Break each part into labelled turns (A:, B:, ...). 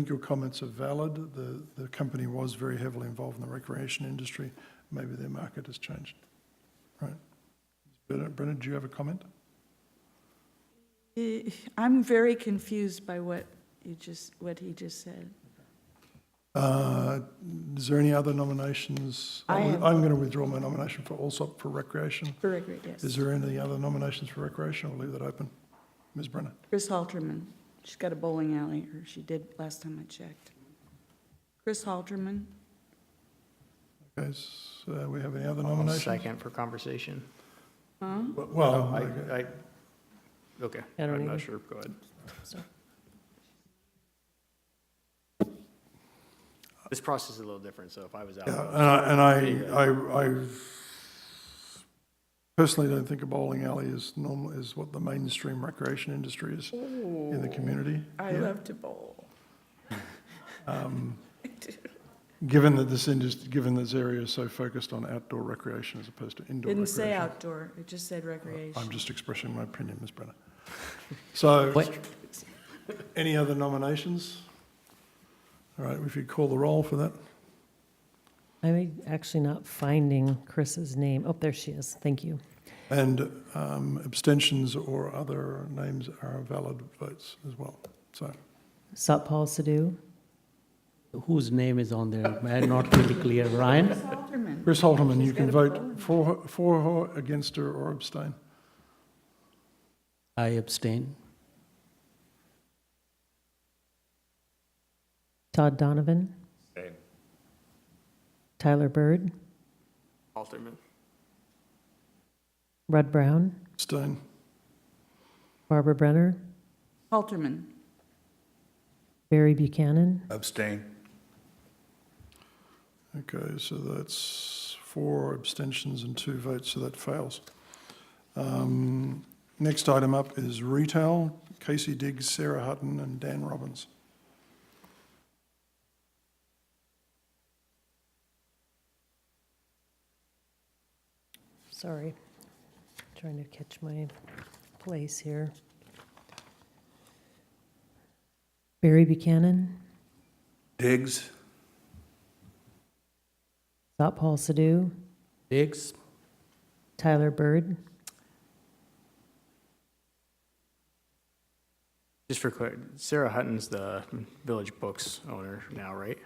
A: think your comments are valid. The, the company was very heavily involved in the recreation industry. Maybe their market has changed. Right. Brenna, Brenna, do you have a comment?
B: Eh, I'm very confused by what you just, what he just said.
A: Uh, Is there any other nominations?
B: I
A: I'm
B: am-
A: going to withdraw my nomination for Allsop for recreation.
B: Very great, yes.
A: Is there any other nominations for recreation? We'll leave that open. Ms. Brenner?
B: Chris Halterman, she's got a bowling alley, or she did last time I checked. Chris Halterman,
A: Okay, so uh, we have any other
C: I'll
A: nominations?
C: Second for conversation.
B: huh?
A: Well,
C: Oh, I,
A: Oh, okay.
C: I, okay,
D: I don't
C: I'm
D: either.
C: not sure, go ahead. This process is a little different, so if I was out,
A: Yeah, uh,
C: I
A: and I, and I, I, I personally don't think a bowling alley is normal, is what the mainstream recreation industry is in the community.
B: I love to bowl.
A: Given that this industry, given this area is so focused on outdoor recreation as opposed to indoor
B: Didn't say
A: recreation.
B: outdoor, it just said
A: I'm
B: recreation.
A: just expressing my opinion, Ms. Brenner. So,
D: What,
A: any other nominations? All right, if you call the roll for that.
D: I'm actually not finding Chris's name. Oh, there she is. Thank you.
A: And um, abstentions or other names are valid votes as well, so.
D: Satpal Sidhu,
E: whose name is on there, I'm not really clear. Ryan?
B: Chris Halterman,
A: Chris Holtman, you
B: She's
A: can
B: got a
A: vote for, her- for her, against her, or abstain.
E: I abstain.
D: Todd Donovan,
C: Same.
D: Tyler Bird,
C: Alderman.
D: Rudd Brown,
A: Abstain.
D: Barbara Brenner,
B: Halterman,
D: Barry Buchanan,
F: Abstain.
A: Okay, so that's four abstentions and two votes, so that fails. Um, Next item up is retail, Casey Diggs, Sarah Hutton, and Dan Robbins.
D: sorry, trying to catch my place here. Barry Buchanan,
F: Diggs.
D: Satpal Sidhu,
E: Diggs?
D: Tyler Bird,
C: Just for clarity, Sarah Hutton's the Village Books owner now, right?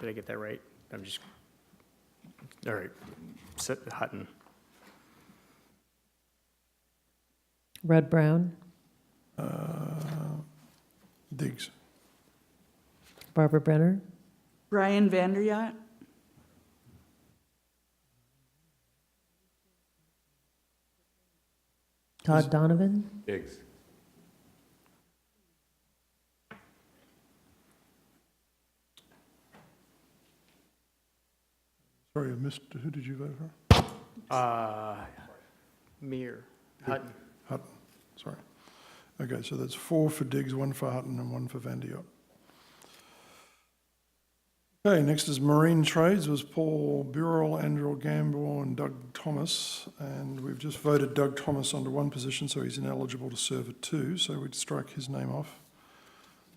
C: Did I get that right? I'm just, all right, Sa- Hutton,
D: Rudd Brown,
A: Uh, Diggs,
D: Barbara Brenner,
B: Brian Vanderyacht,
D: Todd Donovan,
F: Diggs.
A: sorry, I missed, who did you vote for?
C: uh, Mir, Hutton.
A: Hutton, sorry. Okay, so that's four for Diggs, one for Hutton, and one for Van de Yot. Okay, next is Marine Trades, was Paul Burrell, Andrew Gamble, and Doug Thomas. And we've just voted Doug Thomas onto one position, so he's ineligible to serve at two, so we'd strike his name off.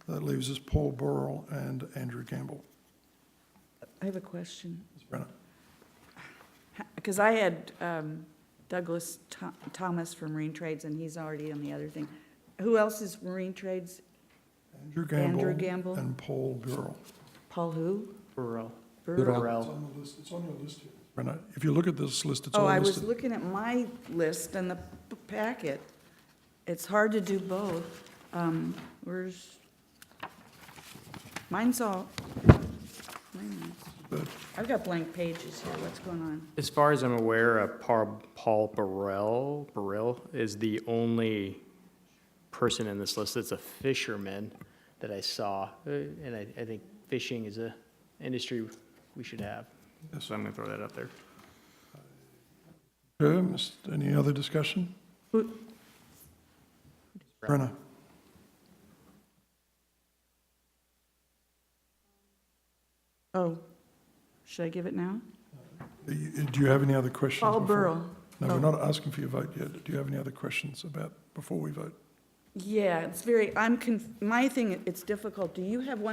A: That leaves us Paul Burrell and Andrew Gamble.
B: I have a question.
A: Ms. Brenner,
B: Because I had um, Douglas Tho- Thomas from Marine Trades, and he's already on the other thing. Who else is Marine Trades?
A: Andrew
B: Andrew
A: Gamble
B: Gamble?
A: and Paul Burrell.
B: Paul who?
C: Burrell.
B: Burrell?
A: It's
C: Burrell.
A: on the list, it's on your list here. Brenner, if you look at this list, it's all
B: Oh,
A: listed.
B: I was looking at my list and the p- packet. It's hard to do both. Um, Where's, mine's all, mine is- I've got blank pages here, what's going on?
C: As far as I'm aware, uh, Paul Paul Burrell, Burrell is the only person in this list that's a fisherman that I saw, Uh, and I, I think fishing is a industry we should have. So I'm gonna throw that up there.
A: Okay, Miss- Any other discussion?
B: Who-
A: Brenna,
B: Oh, should I give it now?
A: do you do you have any other questions?
B: Paul
A: before-
B: Burrell.
A: No,
B: Oh.
A: we're not asking for your vote yet. Do you have any other questions about, before we vote?
B: Yeah, it's very, I'm, conf- my thing, it's difficult. Do you have one